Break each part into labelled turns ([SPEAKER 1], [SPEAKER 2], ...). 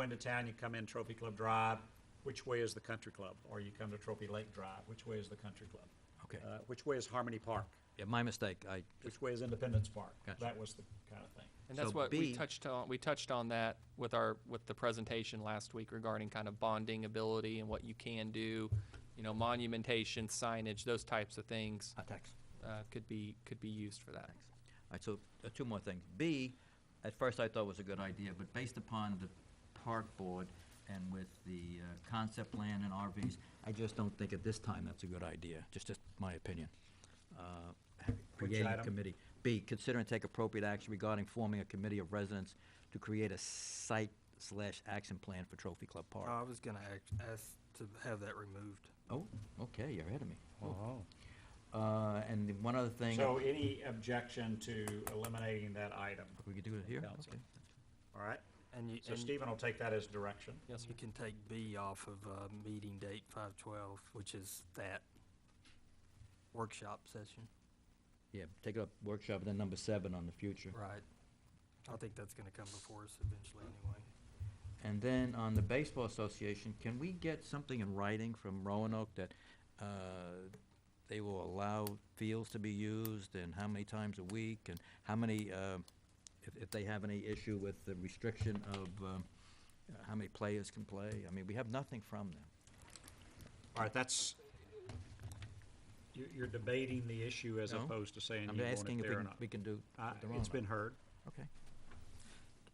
[SPEAKER 1] into town, you come in Trophy Club Drive, which way is the country club? Or you come to Trophy Lake Drive, which way is the country club?
[SPEAKER 2] Okay.
[SPEAKER 1] Uh, Which way is Harmony Park?
[SPEAKER 2] Yeah, my mistake. I,
[SPEAKER 1] Which way is Independence Park?
[SPEAKER 2] Gotcha.
[SPEAKER 1] That was the kind of thing.
[SPEAKER 3] And that's
[SPEAKER 2] So
[SPEAKER 3] what we
[SPEAKER 2] B-
[SPEAKER 3] touched on, we touched on that with our, with the presentation last week regarding kind of bonding ability and what you can do, you know, monumentation, signage, those types of things,
[SPEAKER 2] uh, thanks.
[SPEAKER 3] uh, could be, could be used for that.
[SPEAKER 2] All right, so uh, two more things. B, at first I thought was a good idea, but based upon the park board and with the uh, concept plan and RVs, I just don't think at this time that's a good idea, just, just my opinion. Uh, Creating a
[SPEAKER 1] item?
[SPEAKER 2] committee. B, consider and take appropriate action regarding forming a committee of residents to create a site slash action plan for Trophy Club Park.
[SPEAKER 4] I was gonna act- ask to have that removed.
[SPEAKER 2] Oh, okay, you're ahead of me. Oh. Uh, and the one other thing,
[SPEAKER 1] So any objection to eliminating that item?
[SPEAKER 2] we could do it here?
[SPEAKER 1] Council.
[SPEAKER 2] Okay.
[SPEAKER 1] All right?
[SPEAKER 4] And you,
[SPEAKER 1] So
[SPEAKER 4] and
[SPEAKER 1] Stephen will take that as direction.
[SPEAKER 3] Yes, sir.
[SPEAKER 4] you can take B off of, uh, meeting date five twelve, which is that workshop session.
[SPEAKER 2] Yeah, take up workshop, and then number seven on the future.
[SPEAKER 4] Right. I think that's gonna come before us eventually anyway.
[SPEAKER 2] And then on the Baseball Association, can we get something in writing from Roanoke that uh, they will allow fields to be used, and how many times a week, and how many, uh, if if they have any issue with the restriction of um, uh, how many players can play? I mean, we have nothing from them.
[SPEAKER 1] All right, that's, you- you're debating the issue as
[SPEAKER 2] No.
[SPEAKER 1] opposed to saying
[SPEAKER 2] I'm
[SPEAKER 1] you want
[SPEAKER 2] asking
[SPEAKER 1] it
[SPEAKER 2] if we
[SPEAKER 1] there or
[SPEAKER 2] can-
[SPEAKER 1] not.
[SPEAKER 2] we can do
[SPEAKER 1] Uh,
[SPEAKER 2] with the
[SPEAKER 1] It's
[SPEAKER 2] Roanoke.
[SPEAKER 1] been heard,
[SPEAKER 2] Okay.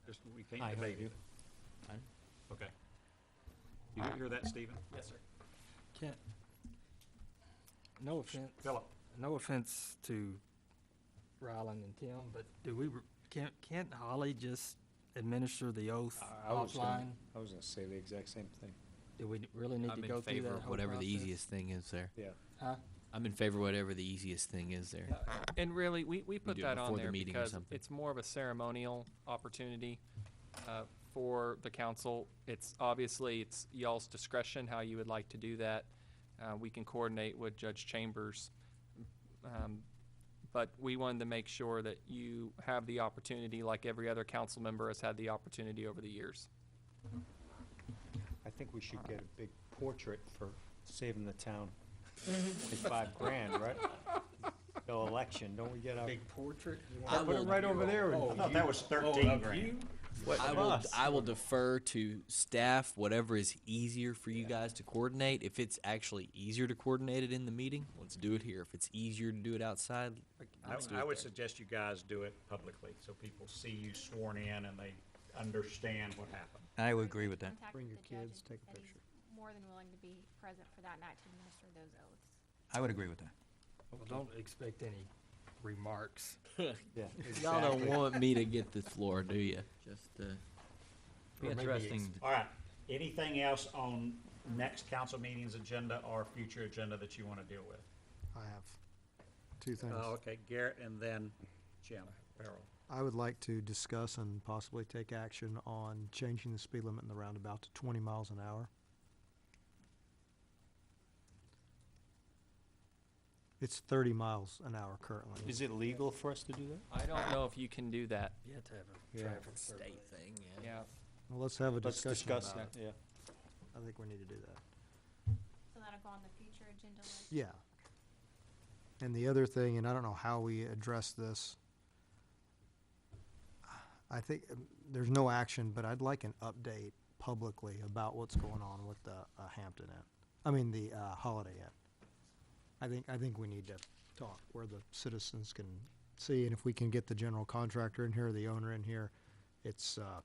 [SPEAKER 1] just, we can't debate it.
[SPEAKER 2] I-
[SPEAKER 1] Okay. You hear that, Stephen?
[SPEAKER 3] Yes, sir.
[SPEAKER 4] Can't, no offense.
[SPEAKER 1] Philip?
[SPEAKER 4] No offense to Ryland and Tim, but do we, re- can't, can't Holly just administer the oath
[SPEAKER 5] I was
[SPEAKER 4] offline?
[SPEAKER 5] gonna, I was gonna say the exact same thing.
[SPEAKER 4] Do we really need to
[SPEAKER 6] I'm
[SPEAKER 4] go
[SPEAKER 6] in
[SPEAKER 4] through that
[SPEAKER 6] favor of
[SPEAKER 4] whole
[SPEAKER 6] whatever the
[SPEAKER 4] process?
[SPEAKER 6] easiest thing is there.
[SPEAKER 5] Yeah.
[SPEAKER 4] Huh?
[SPEAKER 6] I'm in favor of whatever the easiest thing is there.
[SPEAKER 3] And really, we, we put
[SPEAKER 6] do it
[SPEAKER 3] that on
[SPEAKER 6] before the
[SPEAKER 3] there
[SPEAKER 6] meeting or
[SPEAKER 3] because
[SPEAKER 6] something.
[SPEAKER 3] it's more of a ceremonial opportunity uh, for the council. It's, obviously, it's y'all's discretion how you would like to do that. Uh, We can coordinate with Judge Chambers. Um, But we wanted to make sure that you have the opportunity, like every other council member has had the opportunity over the years.
[SPEAKER 5] I think we should get a big portrait for saving the town. It's five grand, right? Till election, don't we get our,
[SPEAKER 1] portrait?
[SPEAKER 6] I
[SPEAKER 5] put it
[SPEAKER 6] will-
[SPEAKER 5] right over there
[SPEAKER 1] I
[SPEAKER 5] and
[SPEAKER 1] thought that was thirteen grand.
[SPEAKER 6] I will, I will defer to staff, whatever is easier for you guys to coordinate. If it's actually easier to coordinate it in the meeting, let's do it here. If it's easier to do it outside,
[SPEAKER 1] I,
[SPEAKER 6] let's do
[SPEAKER 1] I
[SPEAKER 6] it
[SPEAKER 1] would
[SPEAKER 6] there.
[SPEAKER 1] suggest you guys do it publicly, so people see you sworn in and they understand what happened.
[SPEAKER 2] I would agree with that.
[SPEAKER 7] Contact
[SPEAKER 5] Bring your
[SPEAKER 7] the judge
[SPEAKER 5] kids,
[SPEAKER 7] and
[SPEAKER 5] take a
[SPEAKER 7] that he's
[SPEAKER 5] picture.
[SPEAKER 7] More than willing to be present for that night to administer those oaths.
[SPEAKER 2] I would agree with that.
[SPEAKER 4] Well, don't expect any remarks.
[SPEAKER 5] yeah.
[SPEAKER 6] y'all don't
[SPEAKER 5] exactly.
[SPEAKER 6] want me to get the floor, do you? Just, uh,
[SPEAKER 2] Be interesting.
[SPEAKER 1] All right, anything else on next council meeting's agenda or future agenda that you want to deal with?
[SPEAKER 8] I have two things.
[SPEAKER 5] Uh,
[SPEAKER 1] Oh, okay, Garrett and then Jim Farrell.
[SPEAKER 8] I would like to discuss and possibly take action on changing the speed limit in the roundabout to 20 miles an hour. It's 30 miles an hour currently.
[SPEAKER 5] Is it legal for us to do that?
[SPEAKER 3] I don't know if you can do that.
[SPEAKER 4] You have to have a
[SPEAKER 5] Yeah.
[SPEAKER 4] traffic survey.
[SPEAKER 6] state thing, yeah.
[SPEAKER 3] Yeah.
[SPEAKER 8] Well, let's have a
[SPEAKER 5] Let's
[SPEAKER 8] discussion
[SPEAKER 5] discuss
[SPEAKER 8] about
[SPEAKER 5] that,
[SPEAKER 8] it.
[SPEAKER 5] yeah.
[SPEAKER 8] I think we need to do that.
[SPEAKER 7] So that'll go on the future agenda list.
[SPEAKER 8] Yeah. And the other thing, and I don't know how we address this. I think um, there's no action, but I'd like an update publicly about what's going on with the uh, Hampton Inn. I mean, the uh, Holiday Inn. I think, I think we need to talk where the citizens can see, and if we can get the general contractor in here, the owner in here, it's, uh,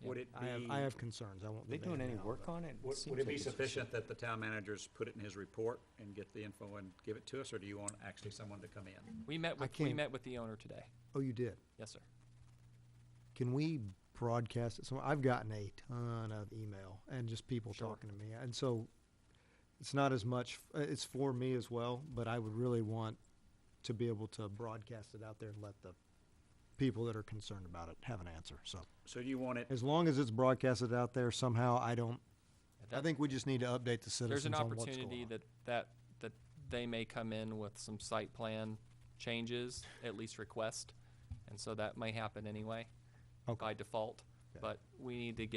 [SPEAKER 1] Would it
[SPEAKER 8] I have,
[SPEAKER 1] be,
[SPEAKER 8] I have concerns. I won't.
[SPEAKER 5] Are they
[SPEAKER 8] debate
[SPEAKER 5] doing
[SPEAKER 8] it
[SPEAKER 5] any
[SPEAKER 8] now,
[SPEAKER 5] work
[SPEAKER 8] but-
[SPEAKER 5] on it?
[SPEAKER 1] would
[SPEAKER 5] seems
[SPEAKER 1] would it
[SPEAKER 5] like
[SPEAKER 1] be
[SPEAKER 5] it's just-
[SPEAKER 1] sufficient that the town managers put it in his report and get the info and give it to us, or do you want actually someone to come in?
[SPEAKER 3] We met with, we
[SPEAKER 8] can't-
[SPEAKER 3] met with the owner today.
[SPEAKER 8] Oh, you did?
[SPEAKER 3] Yes, sir.
[SPEAKER 8] can we broadcast it? So I've gotten a ton of email and just people talking to me, and so it's not as much. uh, It's for me as well, but I would really want to be able to broadcast it out there and let the people that are concerned about it have an answer. So
[SPEAKER 1] So do you want it,
[SPEAKER 8] as long as it's broadcasted out there somehow, I don't. I
[SPEAKER 3] That-
[SPEAKER 8] think we just need to update the
[SPEAKER 3] There's an
[SPEAKER 8] citizens on what's going
[SPEAKER 3] opportunity
[SPEAKER 8] on.
[SPEAKER 3] that, that, that they may come in with some site plan changes, at least request. And so that may happen anyway,
[SPEAKER 8] Okay.
[SPEAKER 3] by default.
[SPEAKER 8] Okay.
[SPEAKER 3] But we need to get